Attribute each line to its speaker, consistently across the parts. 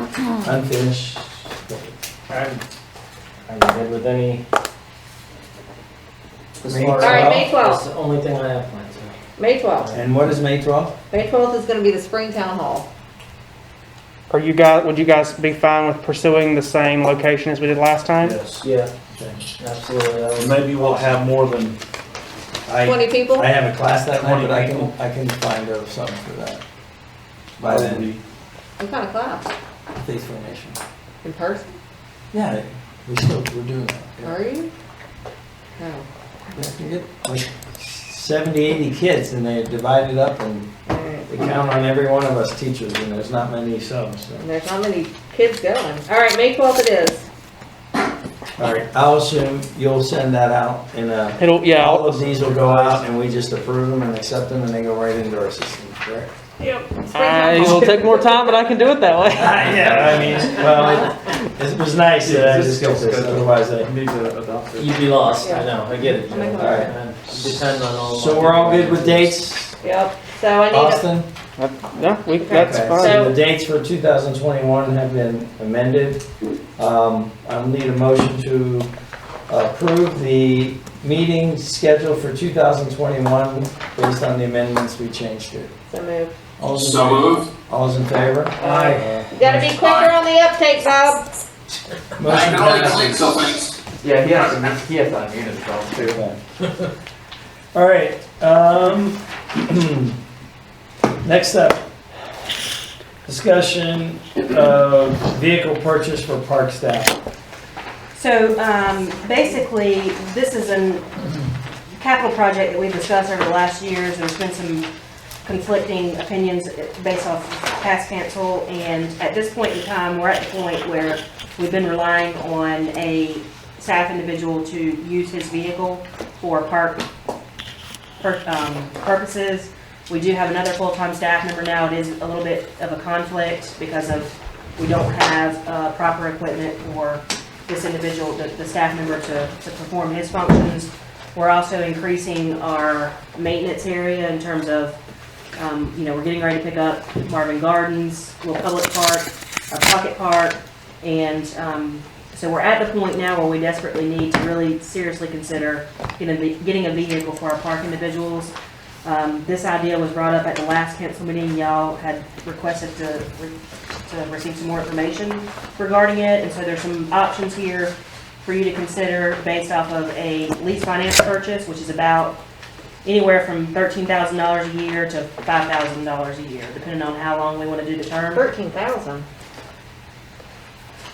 Speaker 1: unfinished. I'm, I'm good with any.
Speaker 2: May
Speaker 1: All
Speaker 3: All right, May
Speaker 1: That's the only thing I have planned, so.
Speaker 3: May 12th.
Speaker 2: And what is May twelfth?
Speaker 3: May 12th is going to be the spring town hall.
Speaker 4: Are you guys, would you guys be fine with pursuing the same location as we did last time?
Speaker 2: Yes.
Speaker 1: Yeah, absolutely. that was-
Speaker 2: Maybe we'll have more than, I,
Speaker 3: 20 people?
Speaker 2: I have a class that night, but I can,
Speaker 1: Twenty
Speaker 2: I can find out something for that. By then,
Speaker 3: What kind of class?
Speaker 2: face formation.
Speaker 3: In person?
Speaker 2: Yeah, we still, we're doing that. yeah.
Speaker 3: Are you? Oh, No.
Speaker 2: Yeah, you get Like Seventy, eighty kids and they divide it up and
Speaker 3: All right.
Speaker 2: they count on every one of us teachers and there's not many subs, so.
Speaker 3: And there's not many kids going. All right, May 12th it is.
Speaker 2: All right, I'll assume you'll send that out and, uh,
Speaker 4: It'll, yeah,
Speaker 2: all
Speaker 4: I'll-
Speaker 2: of these will go out and we just approve them and accept them and they go right into our system, correct?
Speaker 3: Spring
Speaker 4: I
Speaker 3: town
Speaker 4: will
Speaker 3: hall.
Speaker 4: take more time, but I can do it that way.
Speaker 2: Ah, yeah, I mean, well, it, it was nice that I just got this, otherwise I.
Speaker 5: Need to adopt it.
Speaker 1: You'd be lost, I
Speaker 3: Yeah.
Speaker 1: know, I get it. Joe.
Speaker 3: Make a
Speaker 2: All right.
Speaker 1: And Depend on all.
Speaker 2: So we're all good with dates,
Speaker 3: Yep. So I need, a-
Speaker 2: Austin?
Speaker 4: Yeah, we, that's
Speaker 2: Okay,
Speaker 4: fine.
Speaker 2: So the dates for 2021 have been amended. Um, I'll need a motion to approve the meeting schedule for 2021 based on the amendments we changed it.
Speaker 3: so move.
Speaker 2: All's in
Speaker 6: So
Speaker 2: favor?
Speaker 6: moved.
Speaker 2: All's in favor?
Speaker 1: Uh,
Speaker 3: Aye. You gotta be quicker on the uptake, Bob.
Speaker 6: I
Speaker 2: Motion
Speaker 6: know I
Speaker 2: passes.
Speaker 6: clicked, so thanks.
Speaker 5: Yeah, he has to, he has to unmute himself too.
Speaker 2: All right, um, next up, discussion of vehicle purchase for park staff.
Speaker 7: So um, basically, this is a capital project that we've discussed over the last years. There's been some conflicting opinions based off past council. And at this point in time, we're at the point where we've been relying on a staff individual to use his vehicle for park pur- um, purposes. We do have another full-time staff member now. It is a little bit of a conflict because of, we don't have uh, proper equipment for this individual, the, the staff member to, to perform his functions. We're also increasing our maintenance area in terms of, um, you know, we're getting ready to pick up Marvin Gardens, Little Public Park, our Pocket Park. And, um, so we're at the point now where we desperately need to really seriously consider getting, a ve- getting a vehicle for our park individuals. Um, this idea was brought up at the last council meeting. Y'all had requested to, re- to receive some more information regarding it, and so there's some options here for you to consider based off of a lease finance purchase, which is about anywhere from thirteen thousand dollars a year to five thousand dollars a year, depending on how long we wanna do the term.
Speaker 3: 13,000.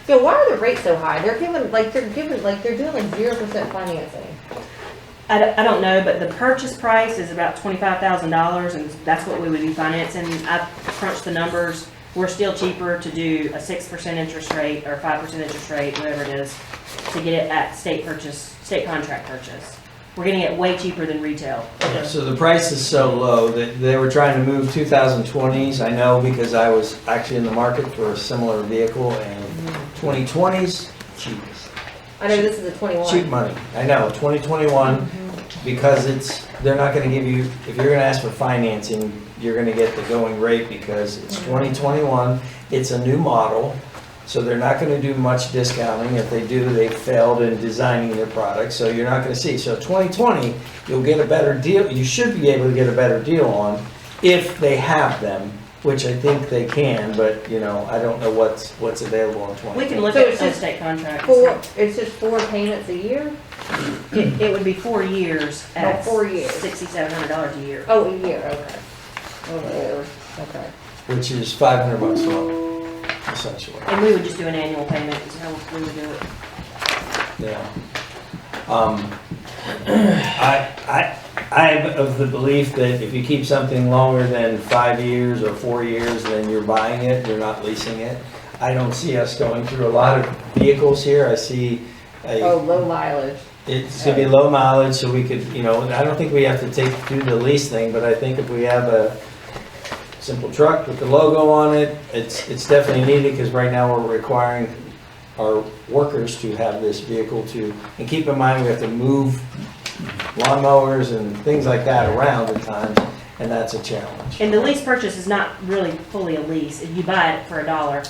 Speaker 3: Yo, why are the rates so high? They're giving, like, they're giving, like, they're doing like 0% financing.
Speaker 7: I don't, I don't know, but the purchase price is about twenty-five thousand dollars, and that's what we would be financing. I crunched the numbers, we're still cheaper to do a six percent interest rate or five percent interest rate, whatever it is, to get it at state purchase, state contract purchase. We're getting it way cheaper than retail.
Speaker 2: So the price is so low that they were trying to move 2020s. I know because I was actually in the market for a similar vehicle and 2020s, cheap,
Speaker 3: I know this is a
Speaker 2: cheap
Speaker 3: 21.
Speaker 2: money. I know, 2021, because it's, they're not gonna give you, if you're gonna ask for financing, you're gonna get the going rate because it's
Speaker 7: Mm.
Speaker 2: 2021, it's a new model, so they're not gonna do much discounting. If they do, they failed in designing their product, so you're not gonna see. So 2020, you'll get a better deal, you should be able to get a better deal on if they have them, which I think they can, but, you know, I don't know what's, what's available in 2020.
Speaker 7: We can look
Speaker 3: So
Speaker 7: at
Speaker 3: it's
Speaker 7: some
Speaker 3: just
Speaker 7: state contracts.
Speaker 3: Four, it's just four payments a year?
Speaker 7: It, it would be four years
Speaker 3: Oh,
Speaker 7: at
Speaker 3: four years.
Speaker 7: sixty-seven hundred dollars a year.
Speaker 3: Oh, a year, okay. Oh, a year, okay.
Speaker 2: which is 500 bucks a month, essentially.
Speaker 7: And we would just do an annual payment, is how we would do it.
Speaker 2: Yeah. Um, I, I, I'm of the belief that if you keep something longer than five years or four years, then you're buying it, you're not leasing it. I don't see us going through a lot of vehicles here. I see
Speaker 3: Oh,
Speaker 2: a,
Speaker 3: low mileage.
Speaker 2: it's gonna be low mileage, so we could, you know, and I don't think we have to take, do the lease thing, but I think if we have a simple truck with the logo on it, it's, it's definitely needed, because right now we're requiring our workers to have this vehicle to, and keep in mind, we have to move lawnmowers and things like that around at times, and that's a challenge.
Speaker 7: And the lease purchase is not really fully a lease, you buy it for a dollar,